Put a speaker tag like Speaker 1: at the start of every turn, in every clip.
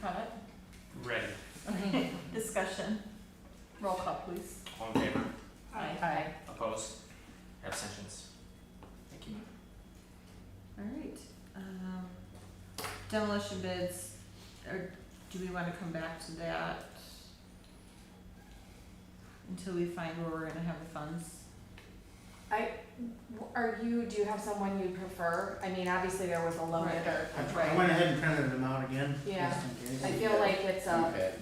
Speaker 1: cut.
Speaker 2: Ready.
Speaker 1: Discussion. Roll call, please.
Speaker 2: All in favor?
Speaker 1: Aye.
Speaker 2: Opposed? Abstentions? Thank you.
Speaker 3: Alright, um, demolition bids, or do we wanna come back to that? Until we find where we're gonna have the funds?
Speaker 4: Are you, do you have someone you prefer? I mean, obviously there was a low
Speaker 3: Right.
Speaker 4: bidder.
Speaker 5: I pr- I went ahead and printed them out again,
Speaker 4: Yeah.
Speaker 5: just in
Speaker 4: I
Speaker 5: case.
Speaker 4: feel like it's a,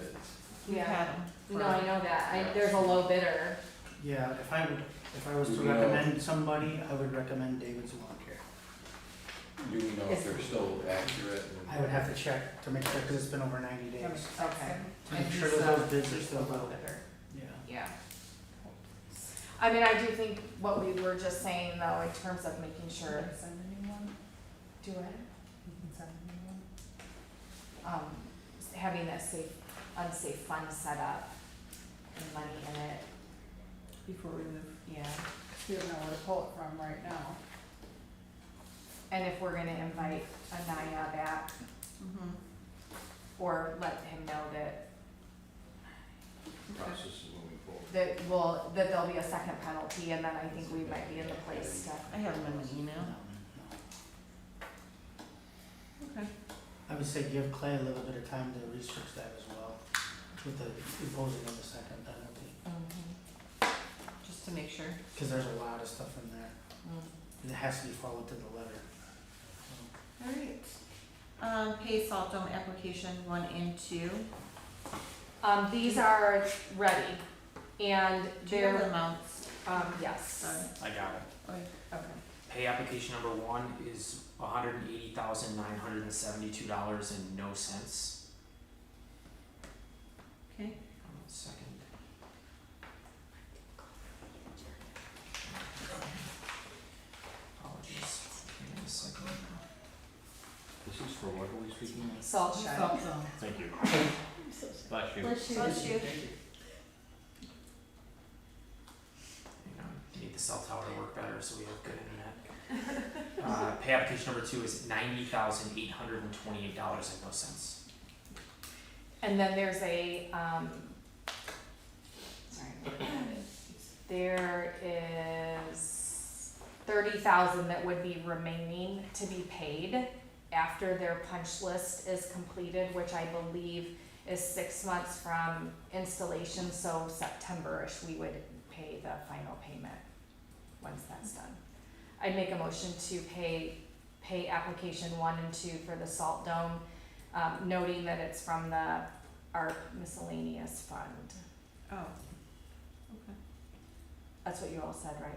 Speaker 3: We've
Speaker 4: Yeah.
Speaker 3: had 'em for-
Speaker 4: no, I know that, I, there's a low bidder.
Speaker 5: Yeah, if I, would- if I was to
Speaker 6: Do we know-
Speaker 5: recommend somebody, I would recommend David's Lawn Care.
Speaker 6: Do we know
Speaker 4: Yes.
Speaker 6: if they're still accurate?
Speaker 5: I would have to check to make sure, cause it's been over ninety days,
Speaker 4: Okay.
Speaker 5: to make
Speaker 3: And
Speaker 5: sure
Speaker 3: he's
Speaker 5: that
Speaker 3: a-
Speaker 5: those bids are
Speaker 3: he's a
Speaker 5: still
Speaker 3: low
Speaker 5: valid,
Speaker 3: bidder.
Speaker 5: yeah.
Speaker 4: Yeah. I mean, I do think what we were just saying though, in terms of making sure,
Speaker 1: Send anyone?
Speaker 4: do it.
Speaker 1: You can send anyone.
Speaker 4: um, having that safe, unsafe fund set up and money in it,
Speaker 3: Before we move,
Speaker 4: yeah.
Speaker 1: You don't know where to pull it from right now.
Speaker 4: And if we're gonna invite Anaya back
Speaker 3: mhm,
Speaker 4: or let him know that,
Speaker 3: okay,
Speaker 6: is moving forward.
Speaker 4: that will, that there'll be a second penalty and then I think we might be in the place to,
Speaker 3: I have them in the
Speaker 5: No,
Speaker 3: email,
Speaker 5: no.
Speaker 3: okay,
Speaker 5: I would say give Clay a little bit of time to research that as well, with the imposing of the second penalty,
Speaker 3: just to make sure.
Speaker 5: cause there's a lot of stuff in there,
Speaker 4: Mm.
Speaker 5: that has to be followed to the letter. So,
Speaker 3: Alright, um, pay salt dome application one and two,
Speaker 4: Um, these are ready and
Speaker 3: do you have the
Speaker 4: they're,
Speaker 3: amounts?
Speaker 4: um, yes.
Speaker 3: Sorry.
Speaker 2: I got it.
Speaker 3: Okay.
Speaker 4: Okay.
Speaker 2: Pay application number one is hundred and eighty thousand nine hundred and seventy-two dollars and no cents.
Speaker 3: Okay,
Speaker 2: Hold on a Second. Apologies. Give me a second.
Speaker 6: This is for what are we speaking of?
Speaker 4: Salt shed.
Speaker 3: salt dome.
Speaker 6: Thank you. Bless you.
Speaker 3: Bless you. Bless you.
Speaker 2: Hang on, need the cell tower to work better so we have good internet. Uh, pay application number two is ninety thousand eight hundred and twenty-eight dollars and no cents.
Speaker 4: And then there's a, um, sorry. There is thirty thousand that would be remaining to be paid after their punch list is completed, which I believe is six months from installation, so September-ish, we would pay the final payment once that's done. I'd make a motion to pay, pay application one and two for the salt dome um, noting that it's from the ARP miscellaneous fund.
Speaker 3: Oh,
Speaker 4: That's what you all said, right?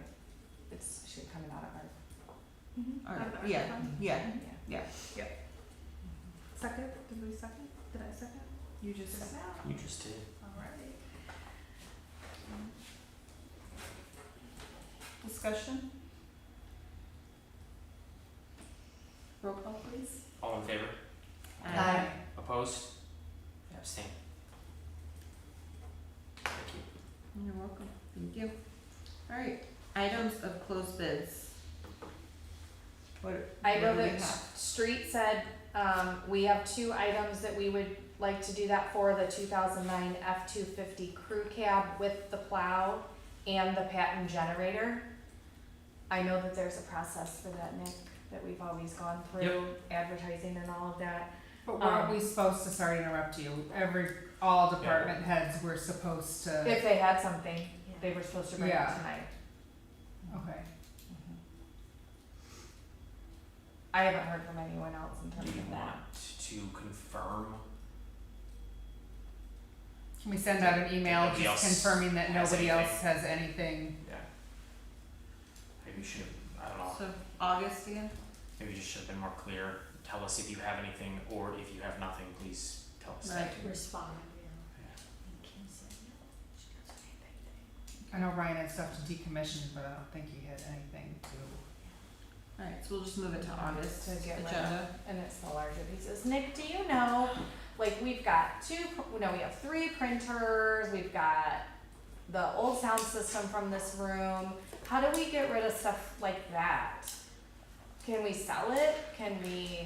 Speaker 4: It's, should be coming out of ARP.
Speaker 3: alright, Mm-hmm. yeah, yeah, yeah.
Speaker 4: Mm-hmm.
Speaker 1: Second, did we second? Did I second?
Speaker 3: You just
Speaker 1: Just
Speaker 3: said.
Speaker 2: You just did.
Speaker 1: Alright.
Speaker 3: Discussion? Roll call, please.
Speaker 2: All in favor?
Speaker 4: Aye.
Speaker 2: Opposed? Abstain. Thank you.
Speaker 3: You're welcome. Thank you. Alright, items of closed bids. What,
Speaker 4: I
Speaker 3: what
Speaker 4: know
Speaker 3: do we
Speaker 4: that
Speaker 3: have?
Speaker 4: Street said, um, we have two items that we would like to do that for, the two thousand nine F two fifty crew cab with the plow and the patent generator. I know that there's a process for that, Nick, that we've always gone through, advertising and all of that.
Speaker 1: But
Speaker 4: weren't we
Speaker 1: supposed to, sorry to interrupt you, every, all
Speaker 2: department
Speaker 1: heads were supposed
Speaker 4: If they had something, they were supposed to bring it
Speaker 1: Yeah.
Speaker 4: tonight. Mm-hmm.
Speaker 1: okay.
Speaker 4: I haven't heard from anyone else in terms
Speaker 2: Do you
Speaker 4: of
Speaker 2: want
Speaker 4: that.
Speaker 2: to confirm?
Speaker 1: Can we send out an email
Speaker 2: Nobody
Speaker 1: just
Speaker 2: else
Speaker 1: confirming that
Speaker 2: has
Speaker 1: nobody
Speaker 2: anything.
Speaker 1: else has anything?
Speaker 2: Yeah. Maybe you should have, I don't know,
Speaker 3: So August again?
Speaker 2: maybe you just should have been more clear. Tell us if you have anything or if you have nothing, please tell us that.
Speaker 3: Right.
Speaker 7: respond,
Speaker 1: I know Ryan had stuff to decommission, but I don't think he had anything to.
Speaker 3: Alright, so we'll just move it to August
Speaker 4: To get rid of.
Speaker 3: agenda.
Speaker 4: And it's the larger pieces. Nick, do you know, like, we've got two, pr- no, we have three printers, we've got the old sound system from this room. How do we get rid of stuff like that? Can we sell it? Can we?